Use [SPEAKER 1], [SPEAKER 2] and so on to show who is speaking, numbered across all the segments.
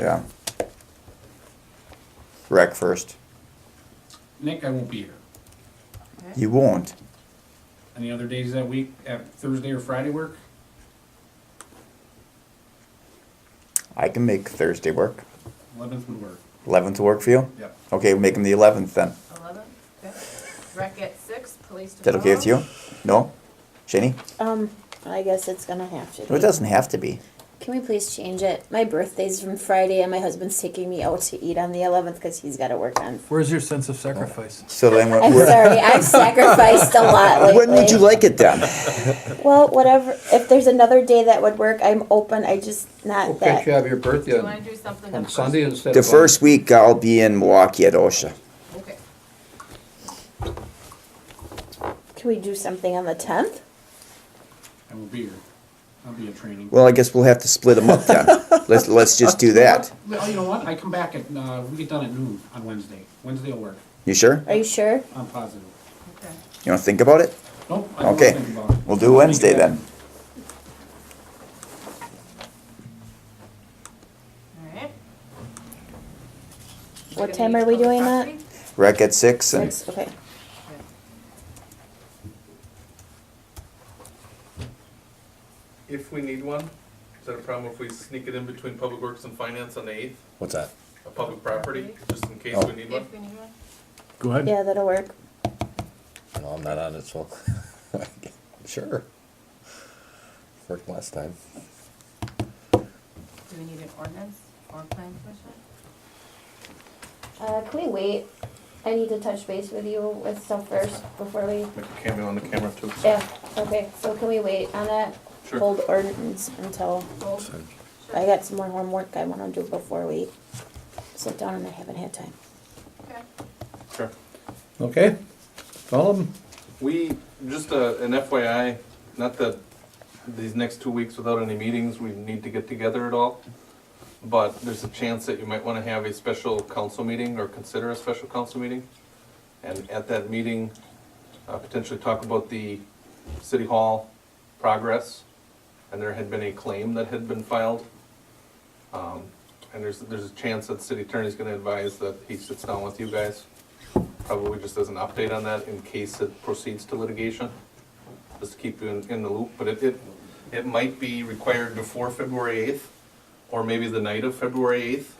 [SPEAKER 1] Yeah. Rec first.
[SPEAKER 2] Nick, I won't be here.
[SPEAKER 1] You won't.
[SPEAKER 2] Any other days that week, uh, Thursday or Friday work?
[SPEAKER 1] I can make Thursday work.
[SPEAKER 2] Eleventh would work.
[SPEAKER 1] Eleventh work for you?
[SPEAKER 2] Yep.
[SPEAKER 1] Okay, we'll make them the eleventh then.
[SPEAKER 3] Eleven, okay. Rec at six, police
[SPEAKER 1] Is that
[SPEAKER 3] tomorrow.
[SPEAKER 1] okay with you? No? Jenny?
[SPEAKER 4] Um, I guess it's gonna have to.
[SPEAKER 1] No, It
[SPEAKER 4] Be.
[SPEAKER 1] doesn't have to be.
[SPEAKER 4] Can we please change it? My birthday's from Friday, and my husband's taking me out to eat on the eleventh because he's got to work on.
[SPEAKER 5] Where's your sense of sacrifice?
[SPEAKER 1] So then
[SPEAKER 4] I'm
[SPEAKER 1] we're,
[SPEAKER 4] sorry, I've sacrificed a lot lately.
[SPEAKER 1] when would you like it then?
[SPEAKER 4] Well, whatever. If there's another day that would work, I'm open. I just not
[SPEAKER 6] Okay, you
[SPEAKER 4] that.
[SPEAKER 6] have your
[SPEAKER 3] Do
[SPEAKER 6] birthday
[SPEAKER 3] you wanna
[SPEAKER 6] on,
[SPEAKER 3] do something?
[SPEAKER 6] on
[SPEAKER 3] the
[SPEAKER 6] Sunday instead of.
[SPEAKER 1] The
[SPEAKER 6] on-
[SPEAKER 1] first week I'll be in Milwaukee at OSHA.
[SPEAKER 3] first? Okay,
[SPEAKER 4] Can we do something on the tenth?
[SPEAKER 2] I won't be here. I'll be at training.
[SPEAKER 1] Well, I guess we'll have to split them up then. Let's, let's just do that.
[SPEAKER 2] Well, you know what? I come back at, uh, we get done at noon on Wednesday. Wednesday will work.
[SPEAKER 1] You sure?
[SPEAKER 4] Are you sure?
[SPEAKER 2] I'm positive.
[SPEAKER 3] okay.
[SPEAKER 1] You wanna think about it?
[SPEAKER 2] Nope. I don't
[SPEAKER 1] Okay.
[SPEAKER 2] think about it.
[SPEAKER 1] We'll
[SPEAKER 2] I'll
[SPEAKER 1] do
[SPEAKER 2] make it
[SPEAKER 1] Wednesday
[SPEAKER 2] happen.
[SPEAKER 1] then.
[SPEAKER 3] Alright.
[SPEAKER 4] What time are we doing that?
[SPEAKER 1] Rec at six and
[SPEAKER 4] Six. Okay.
[SPEAKER 7] If we need one, is that a problem if we sneak it in between Public Works and Finance on the eighth,
[SPEAKER 8] What's that? Oh.
[SPEAKER 7] a public property, just in case we need one?
[SPEAKER 3] If we need one,
[SPEAKER 5] Go ahead.
[SPEAKER 4] Yeah, that'll work.
[SPEAKER 8] No, I'm not on it, so. Sure. Worked last time.
[SPEAKER 3] do we need an ordinance or plan commission?
[SPEAKER 9] Uh, can we wait? I need to touch base with you with stuff first before we.
[SPEAKER 7] Make a cameo on the camera too.
[SPEAKER 9] Yeah. Okay. So can we wait on that?
[SPEAKER 7] Sure.
[SPEAKER 4] Hold ordinance until
[SPEAKER 3] Gold?
[SPEAKER 4] I got some more homework I want to do before we sit down, and I haven't had time.
[SPEAKER 3] Okay.
[SPEAKER 7] Sure.
[SPEAKER 5] Okay. Follow them.
[SPEAKER 7] We, just uh, an FYI, not that these next two weeks without any meetings, we need to get together at all, but there's a chance that you might want to have a special council meeting or consider a special council meeting. And at that meeting, uh, potentially talk about the city hall progress. And there had been a claim that had been filed. Um, And there's, there's a chance that city attorney's going to advise that he sits down with you guys probably just as an update on that in case it proceeds to litigation, just to keep you in, in the loop, but it, it, it might be required before February eighth, or maybe the night of February eighth,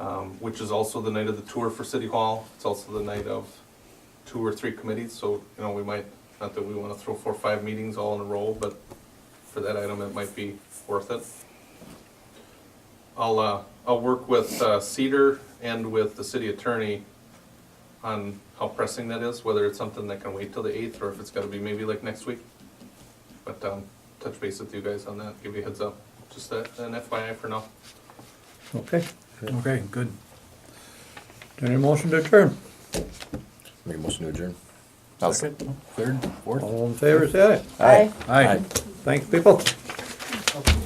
[SPEAKER 7] um, which is also the night of the tour for City Hall, it's also the night of two or three committees, so, you know, we might, not that we wanna throw four or five meetings all in a row, but for that item, it might be worth it. I'll, uh, I'll work with uh, Cedar and with the city attorney on how pressing that is, whether it's something that can wait till the eighth, or if it's gotta be maybe like next week. But, um, touch base with you guys on that, give you a heads up, just a- an FYI for now.
[SPEAKER 5] Okay. Okay, good. Any motion to adjourn?
[SPEAKER 8] Make a motion to adjourn.
[SPEAKER 5] Third, fourth. All in favor, say
[SPEAKER 4] Bye.
[SPEAKER 5] aye. Aye. Thanks, people.
[SPEAKER 2] Okay.